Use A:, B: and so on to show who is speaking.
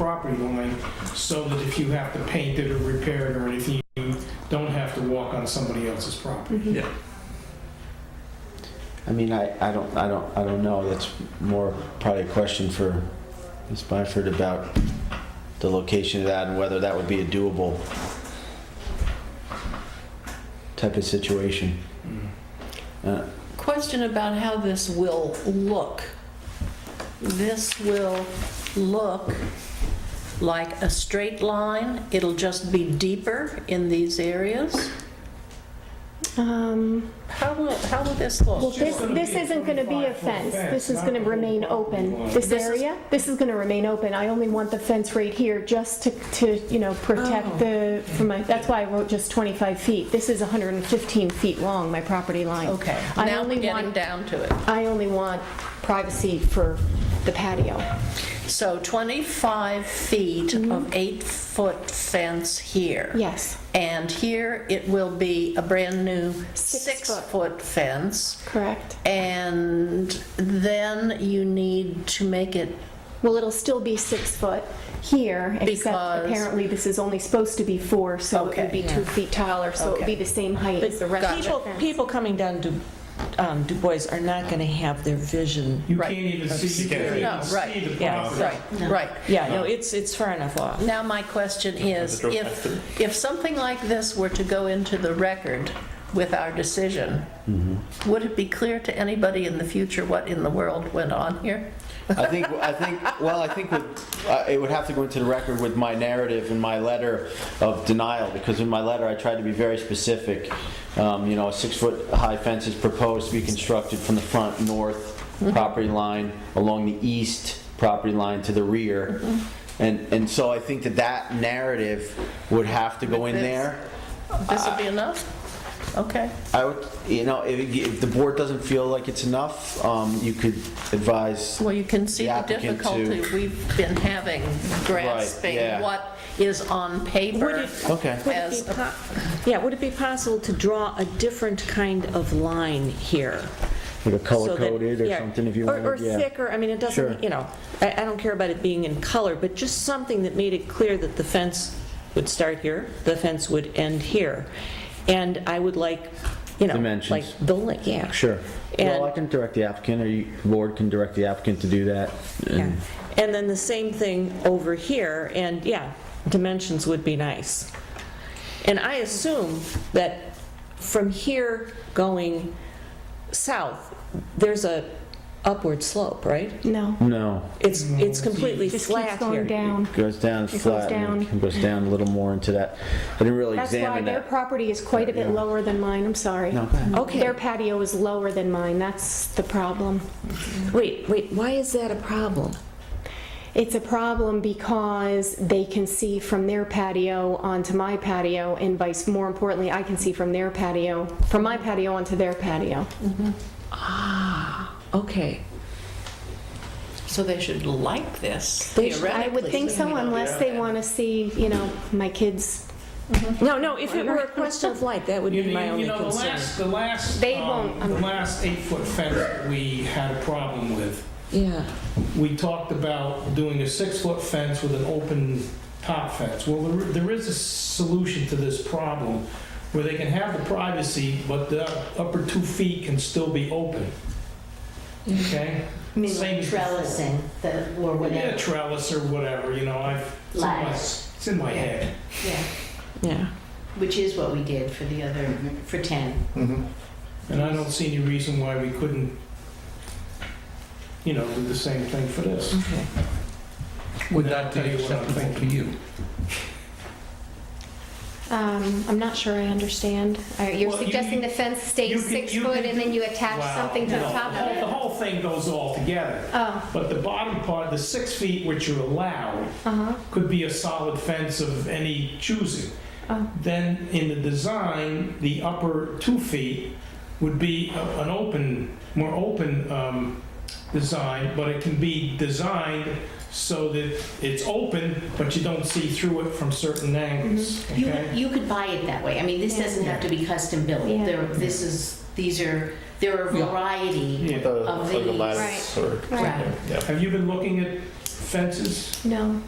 A: property line, so that if you have to paint it or repair it or anything, you don't have to walk on somebody else's property.
B: Yeah.
C: I mean, I, I don't, I don't, I don't know. That's more probably a question for Ms. Byford about the location of that and whether that would be a doable type of situation.
D: Question about how this will look. This will look like a straight line. It'll just be deeper in these areas.
E: Um,
D: How will, how will this look?
E: Well, this,
A: gonna
E: this
A: be a
E: isn't gonna be a
A: 25 foot
E: fence,
A: fence,
E: this is
A: not
E: gonna
A: a whole
E: remain
A: property
E: open.
A: line.
E: This
D: This is-
E: area, this is gonna remain open, I only want the fence right here just to, to, you know, protect the, from my, that's why I wrote just 25 feet. This is 115 feet long, my property line.
D: Okay,
E: I
D: now
E: only
D: we're getting
E: want-
D: down to it.
E: I only want privacy for the patio.
D: So 25 feet
E: Mm-hmm.
D: of eight-foot fence here.
E: Yes,
D: And here, it will be a brand-new
E: Six foot.
D: six-foot fence.
E: correct.
D: And then you need to make it,
E: Well, it'll still be six foot here, except
D: Because-
E: apparently this is only supposed to be four, so it
D: Okay.
E: would be two feet taller, so it would
D: Okay.
E: be the same height as the
D: Gotcha.
E: rest of the
F: People,
E: fence.
F: people coming down Du, um, Du Bois are not gonna have their vision.
A: You
D: Right.
A: can't even see, you
B: You can't
A: can't
B: see.
D: No,
A: even
D: right,
A: see the
F: yeah,
A: property.
D: right, right.
F: Yeah, no, it's, it's far enough off.
D: Now, my question is,
B: drove back through.
D: if, if something like this were to go into the record with our decision,
C: Mm-hmm.
D: would it be clear to anybody in the future what in the world went on here?
C: I think, I think, well, I think with, uh, it would have to go into the record with my narrative and my letter of denial, because in my letter, I tried to be very specific. Um, you know, a six-foot-high fence is proposed to be constructed from the front north property line, along the east property line to the rear. And, and so I think that that narrative would have to go in
D: With this.
C: there.
D: This would
E: Uh,
D: be enough? Okay.
C: I would, you know, if, if the board doesn't feel like it's enough, um, you could advise
D: Well, you can see
C: The
D: the
C: applicant to-
D: difficulty we've been having grasping
C: yeah.
D: what is on
F: Would
D: paper.
F: it,
C: Okay.
F: would it
D: As
F: be
D: a-
F: po- yeah, would it be possible to draw a different kind of line here?
C: Like a
F: So that-
C: color-coded or
F: yeah,
C: something, if you
F: or-
C: wanted,
F: Or
C: yeah.
F: thicker, I mean, it
C: Sure.
F: doesn't, you know, I, I don't care about it being in color, but just something that made it clear that the fence would start here, the fence would end here. And I would like, you know,
C: Dimensions.
F: like building, yeah.
C: Sure.
F: And-
C: Well, I can direct the applicant, or you, the board can direct the applicant to do that.
F: Yeah.
C: and-
F: And then the same thing over here, and yeah, dimensions would be nice. And I assume that from here going south, there's a upward slope, right?
E: No.
C: No,
F: It's, it's completely
E: It just
F: flat
E: keeps
F: here.
E: going down.
C: goes down
E: goes
C: flat, and
E: down.
C: it goes down a little more into that. I didn't really
E: That's why
C: examine
E: their
C: that.
E: property is quite a bit lower than mine, I'm sorry.
C: No, go ahead.
E: Their
F: Okay,
E: patio is lower than mine, that's the problem.
F: wait, wait, why is that a problem?
E: It's a problem because they can see from their patio onto my patio and vice, more importantly, I can see from their patio, from my patio onto their patio.
F: Okay,
D: So they should like this
F: They should-
D: theoretically.
E: I would think so unless they want to see, you know, my kids,
F: no, no, if it were a question of light, that would
A: You
F: be
A: know,
F: my
A: you- you
F: only
A: know, the
F: concern.
A: last, the last,
E: They
A: um,
E: won't, um,
A: the last eight-foot fence that we had a problem with,
F: Yeah,
A: we talked about doing a six-foot fence with an open top fence. Well, there- there is a solution to this problem where they can have the privacy, but the upper two feet can still be open. Okay?
G: I mean,
A: Same
G: like trellising, the, or
A: Yeah,
G: whatever,
A: trellis or whatever, you know, I've, it's in my-
G: Lattice.
A: it's in my head.
G: yeah,
F: yeah.
G: which is what we did for the other, for 10.
A: And I don't see any reason why we couldn't, you know, do the same thing for this.
H: Would that be
A: Tell you what I'm
H: acceptable to
A: thinking.
H: you?
E: um, I'm not sure I understand. Uh, You're
A: Well, you-
E: suggesting the fence
A: you
E: stays
A: could-
E: six
A: you
E: foot
A: could-
E: and then you attach
A: Wow.
E: something to the
A: No,
E: top
A: whole-
E: of
A: The
E: it?
A: whole thing goes all together.
E: Oh,
A: But the bottom part, the six feet which are allowed,
E: uh-huh,
A: could be a solid fence of any choosing.
E: oh,
A: Then in the design, the upper two feet would be a- an open, more open um, design, but it can be designed so that it's open, but you don't see through it from certain angles,
E: Mm-hmm.
G: You,
A: okay?
G: you could buy it that way, I mean, this doesn't have to be custom built,
E: Yeah.
G: there, this is, these are, there are a variety.
A: Yeah.
G: Of
B: Like a
G: these.
B: lattice or
E: Right.
B: something, yeah.
A: Have you been looking at fences?
E: no.